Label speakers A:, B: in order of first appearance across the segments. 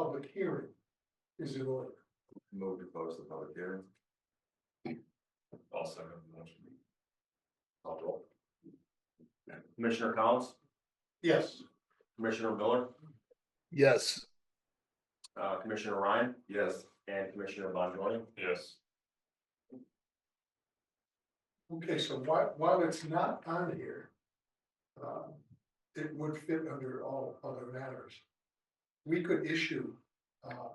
A: public hearing is in order.
B: Move to close the public hearing.
C: I'll second the motion. I'll roll. Commissioner Collins,
A: Yes,
C: Commissioner Miller,
D: yes,
C: uh, Commissioner Ryan,
B: Yes.
C: and Commissioner Bonjour. Yes.
A: okay, so while, while it's not on here. um, It would fit under all other matters. We could issue, uh.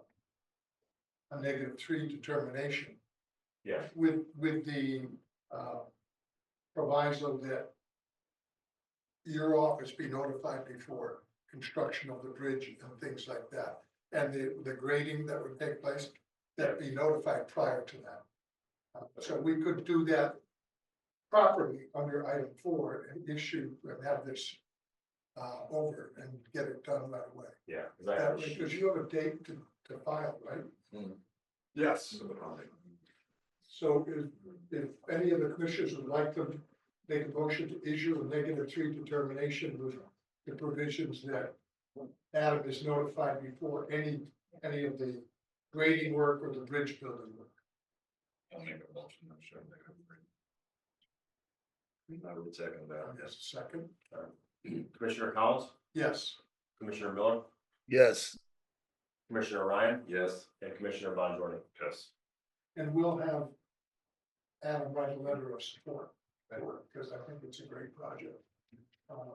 A: A negative three determination
C: Yeah,
A: with, with the, uh, proviso that your office be notified before construction of the bridge and things like that, and the, the grading that would take place, that be notified prior to that. Uh, So we could do that properly under item four and issue, and have this uh, over and get it done right away.
C: yeah. 'cause I
A: That
C: have-
A: way, Because you have a date to, to file, right?
B: Yes.
A: So if, if any of the commissioners would like to make a motion to issue a negative three determination with the provisions that Adam is notified before any, any of the grading work or the bridge building work.
B: I'll make a motion, I'm sure. I would second that,
A: Yes, second,
C: Commissioner Collins,
A: yes,
C: Commissioner Miller,
D: yes,
C: Commissioner Ryan,
B: yes.
C: and Commissioner Bonjour. Yes.
A: and we'll have Adam write a letter of support, because I think it's a great project. Um,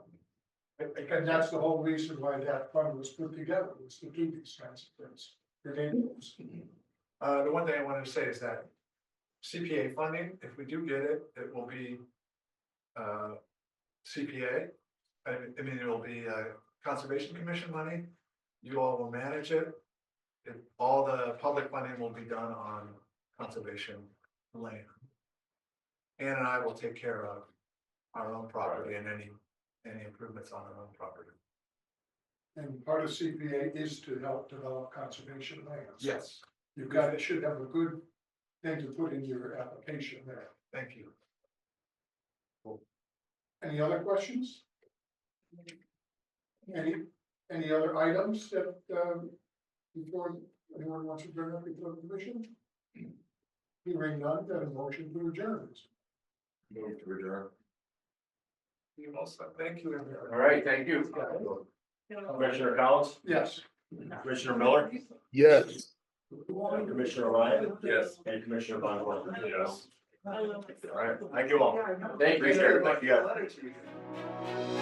A: And that's the whole reason why that fund was put together, was to do these kinds of things. Your name was-
E: Uh, the one thing I wanted to say is that CPA funding, if we do get it, it will be uh, CPA. I mean- I mean, it will be uh, Conservation Commission money. You all will manage it. If all the public funding will be done on conservation land. Ann and I will take care of our own property and any, any improvements on our own property.
A: And part of CPA is to help develop conservation lands.
E: Yes,
A: You've got, it should have a good thing to put in your application there.
E: thank you.
A: Any other questions? Any, any other items that, um, before, anyone wants to bring up before the commission? Hearing none, then a motion to adjourn.
B: Move to adjourn.
E: Thank you, everyone.
C: All right, thank you. Commissioner Collins,
A: Yes.
C: Commissioner Miller,
D: yes.
C: and Commissioner Ryan.
B: Yes.
C: And Commissioner Bonjour.
B: Yes.
C: All right, thank you all.
B: Thank you.
C: Appreciate it. Thank you guys.
B: Letter to you.